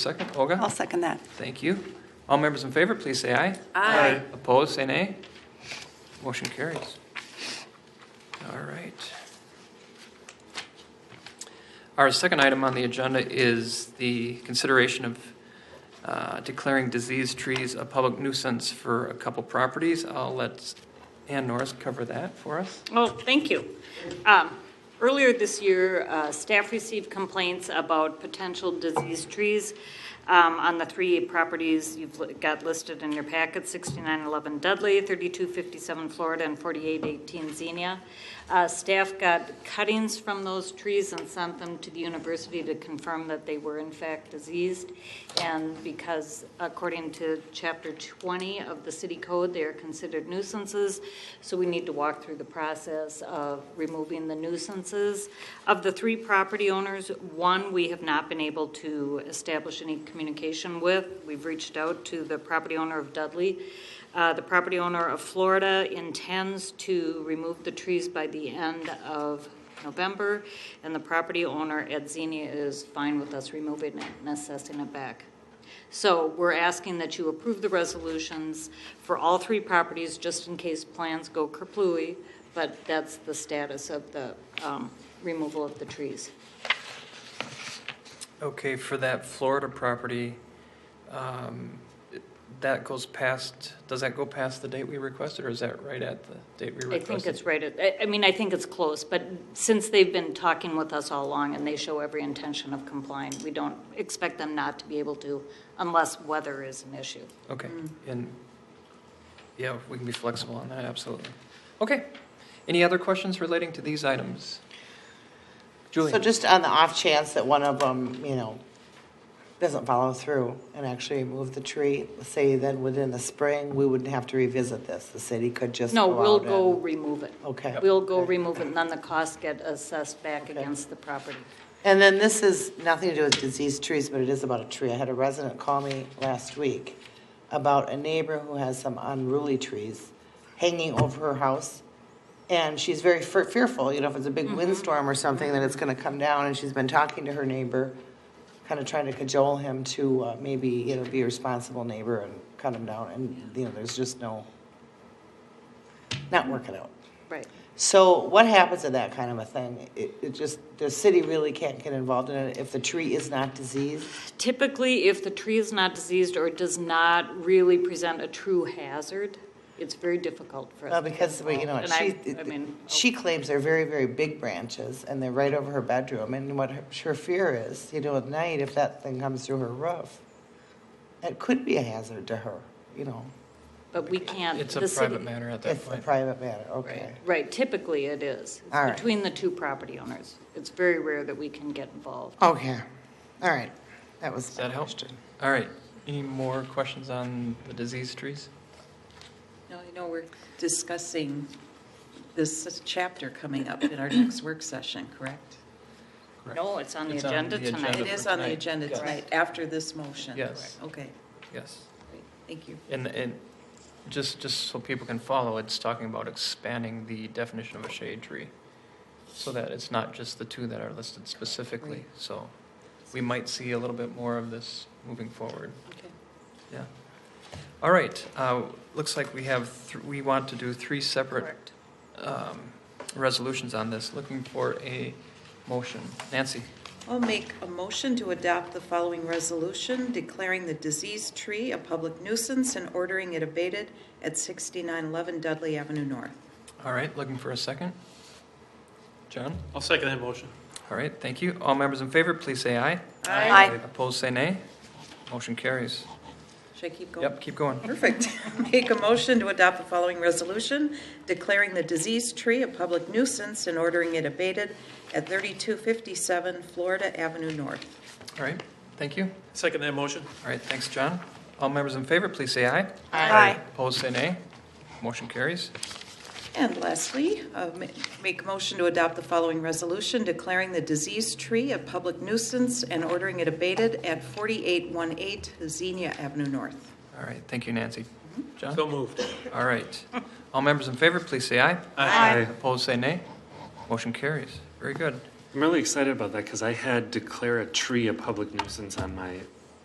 Second, Olga? Oh. I'll second that. Thank you. All members in favor, please say aye. Aye. Opposed, say nay. Motion carries. All right. Our second item on the agenda is the consideration of uh, declaring diseased trees a public nuisance for a couple properties. I'll let Ann Norris cover that for us. Oh, thank you. Um, Earlier this year, uh, staff received complaints about potential diseased trees um, on the three properties you've li- got listed in your packet, 6911 Dudley, 3257 Florida, and 4818 Xenia. Uh, Staff got cuttings from those trees and sent them to the university to confirm that they were in fact diseased. And because according to Chapter 20 of the city code, they are considered nuisances. So we need to walk through the process of removing the nuisances. Of the three property owners, one we have not been able to establish any communication with. We've reached out to the property owner of Dudley. Uh, The property owner of Florida intends to remove the trees by the end of November, and the property owner at Xenia is fine with us removing it and assessing it back. So we're asking that you approve the resolutions for all three properties, just in case plans go kerplooey, but that's the status of the um, removal of the trees. Okay, for that Florida property, um, that goes past, does that go past the date we requested, or is that right at the date we I requested? think it's right, at- I- I mean, I think it's close, but since they've been talking with us all along and they show every intention of complying, we don't expect them not to be able to unless weather is an issue. Okay, mm. and, yeah, we can be flexible on that, absolutely. Okay, any other questions relating to these items? So Julie, just on the off chance that one of them, you know, doesn't follow through and actually move the tree, say then within the spring, we wouldn't have to revisit this. The city could just No, go we'll out go and- remove it. Okay. We'll go remove it, and then the costs get assessed back against the property. And then this is nothing to do with diseased trees, but it is about a tree. I had a resident call me last week about a neighbor who has some unruly trees hanging over her house. And she's very fear- fearful, you know, if it's a big windstorm or something, that it's going to come down. And she's been talking to her neighbor, kind of trying to cajole him to uh, maybe, you know, be a responsible neighbor and cut him down. And, you know, there's just no, not working out. Right. So what happens in that kind of a thing? It, it just, the city really can't get involved in it if the tree is not diseased? Typically, if the tree is not diseased or does not really present a true hazard, it's very difficult for us. Well, to because, get we- you know, involved. she, And I, I mean, she claims they're very, very big branches and they're right over her bedroom. And what her, her fear is, you know, at night, if that thing comes through her roof, it could be a hazard to her, you know. oh, but we can't. it's a um, the city- private matter at that It's a point. private matter, okay. Right, right, typically it is. It's All right. Between the two property owners. It's very rare that we can get involved. Okay, all right. That was Does my that help? question. All right, any more questions on the diseased trees? No, you know, we're discussing this chapter coming up in our next work session, correct? Correct. No, it's on the It's on agenda the agenda. tonight. It is on the Right. agenda Yes. tonight, after this motion. Yes. Correct. Okay, Yes, great, thank you. and, and just, just so people can follow, it's talking about expanding the definition of a shade tree, so that it's not just the two that are listed specifically, Right. so we might see a little bit more of this moving forward. Okay. Yeah. All right, uh, looks like we have, th- we want to do three separate um, resolutions on this, looking for a motion. Nancy, I'll make a motion to adopt the following resolution declaring the diseased tree a public nuisance and ordering it abated at 6911 Dudley Avenue North. all right, looking for a second? John? I'll second that motion. All right, thank you. All members in favor, please say aye. Aye. Opposed, say nay. Motion carries. Should I keep going? Yep, keep going. Perfect. Make a motion to adopt the following resolution, declaring the diseased tree a public nuisance and ordering it abated at 3257 Florida Avenue North. All right, thank you. Second that motion. All right, thanks, John. All members in favor, please say aye. Aye. Opposed, say nay. Motion carries. And lastly, uh, ma- make a motion to adopt the following resolution, declaring the diseased tree a public nuisance and ordering it abated at 4818 Xenia Avenue North. All right, thank you, Nancy. John? So moved. All right. All members in favor, please say aye. Aye. Opposed, say nay. Motion carries. Very good. I'm really excited about that because I had declare a tree a public nuisance on my